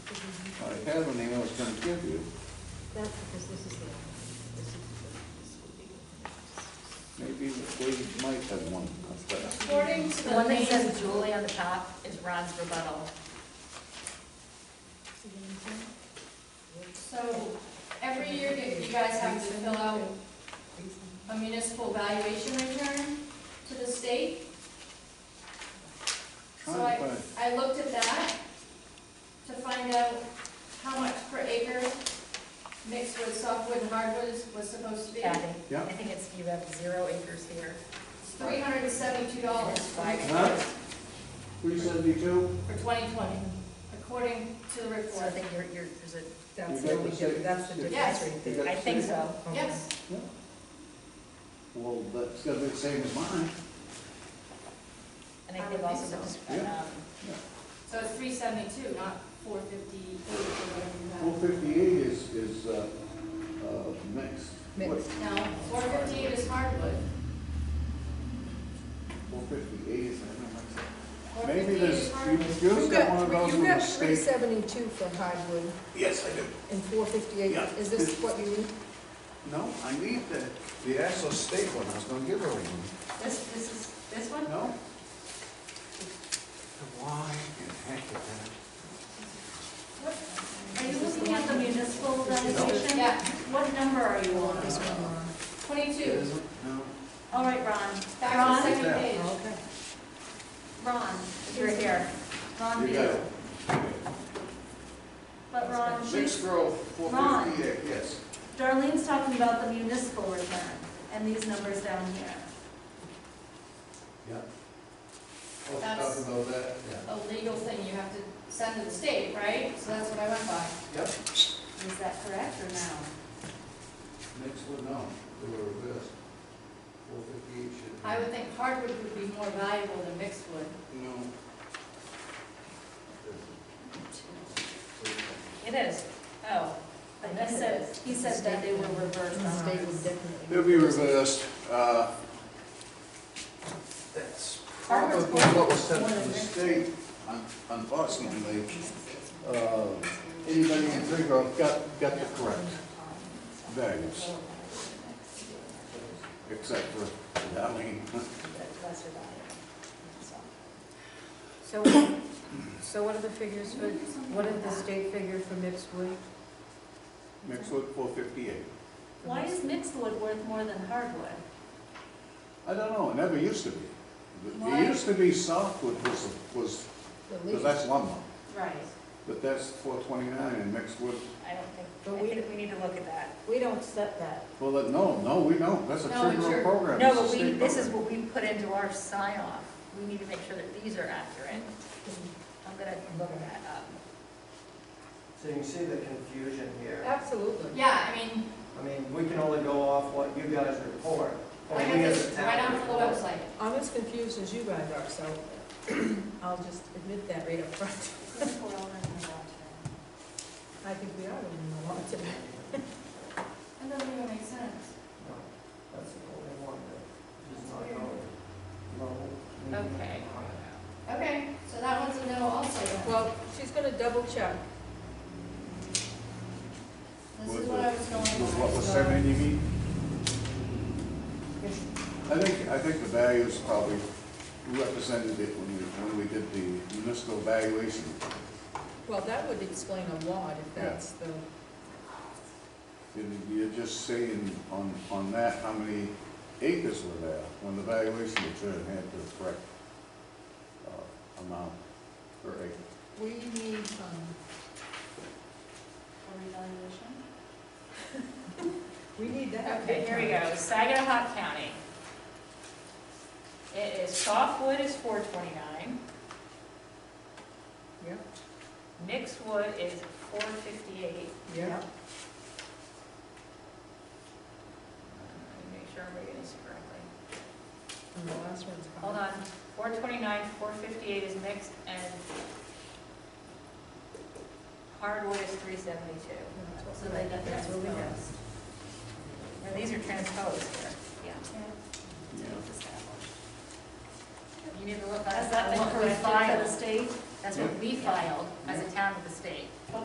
had when they was gonna give you, That's because this is the, this is the. maybe the lady might have one up there. According to The the one that main, says Julie on the top is Ron's rebuttal. so every year that you guys have to fill out a municipal valuation return to the state. So Trying to I, find- I looked at that to find out how much per acre mixed with softwood and hardwoods was supposed to be. Yeah, Yeah. I think it's, you have zero acres here. It's three hundred and seventy-two dollars for Huh? Three seventy-two? twenty twenty, according to the So I report. think you're, you're, there's a, That's You the got the same- difference, that's the Yes. difference right there. I think so. Yes, Well, that's gotta be the same as mine. And I I think would think also so. the, dis- Yeah. um, so it's three seventy-two, not four fifty-eight or whatever you Four fifty-eight is, is, uh, uh, mixed. Mixed. have. No, four fifty-eight is hardwood. Four fifty-eight is, I don't know. Four Maybe fifty-eight there's, is hardwood. you, You you've got one of got, those you from the got three state. seventy-two for hardwood Yes, I do. and four fifty-eight, Yeah. is this what you need? No, I need the, the actual state one, I was gonna give her one. This, this is, this one? No? Why in heck did that? Are you looking at the municipal valuation? Yeah, What number are you on? twenty-two, No. All right, Ron. back to the second Ron? page. Okay. Ron, you're here. Ron You got Beal. it. But Ron, she's, Mixed growth, four Ron. fifty-eight, yes. Darlene's talking about the municipal return and these numbers down here. Yeah. I'll talk That's- Oh, about that, yeah. a legal thing you have to send to the state, right? So that's what I went by. Yep, Is that correct or no? next one, no, they were reversed. Four fifty-eight should. be- I would think hardwood would be more valuable than mixed wood. No. It is. Oh, But he said, he said that they were reversed The on state would ours. definitely. It'll be reversed, uh. That's Farmers probably what was sent to the state, un- unfortunately. Uh, Anybody in three growth got, got the correct values, except for Darlene. Lesser value. So, so what are the figures for, what are the state figure for mixed wood? Mixed with four fifty-eight. Why is mixed wood worth more than hardwood? I don't know, it never used to be. Why? It used to be softwood was, was, The because least. that's lumber, Right. but that's four twenty-nine and mixed wood. I don't But think, we- I think we need to look at that. We don't set that. Well, that- no, no, we don't, that's a No, tree it's growth your- program. No, It's a but we, state this is program. what we put into our sign off. We need to make sure that these are accurate. I'm gonna look that up. So you can see the confusion here. Absolutely. Yeah, I mean, I mean, we can only go off what you guys report. or I got we as a this town right on the report. website. I'm as confused as you guys are, so I'll just admit that right up front. I think we are learning a lot today. That doesn't even make sense. No, That's the only one that is not going low. medium, Okay. high. Okay, so that one's a no also then. Well, she's gonna double check. This With is what I was the- going with What by, was so. seven, you mean? I think, I think the values probably represented it when we, when we did the municipal valuation. Well, that would explain a lot if Yeah. that's the, And You're just saying on, on that, how many acres were there when the valuation return had the correct uh, amount per acre. we need, um, For revaluation? we need that. Okay, here we go, Saginaw County. It is, softwood is four twenty-nine, Yep, mixed wood is four fifty-eight. yep. Make sure I'm reading this correctly. And the last one's. Hold on, four twenty-nine, four fifty-eight is mixed, and hardwood is three seventy-two. So they got That's that what we got. exposed. And these are transposed here. Yeah. Yeah. You need to look, Is that's that what what we we filed to the filed, state? that's what we filed as a town with the state.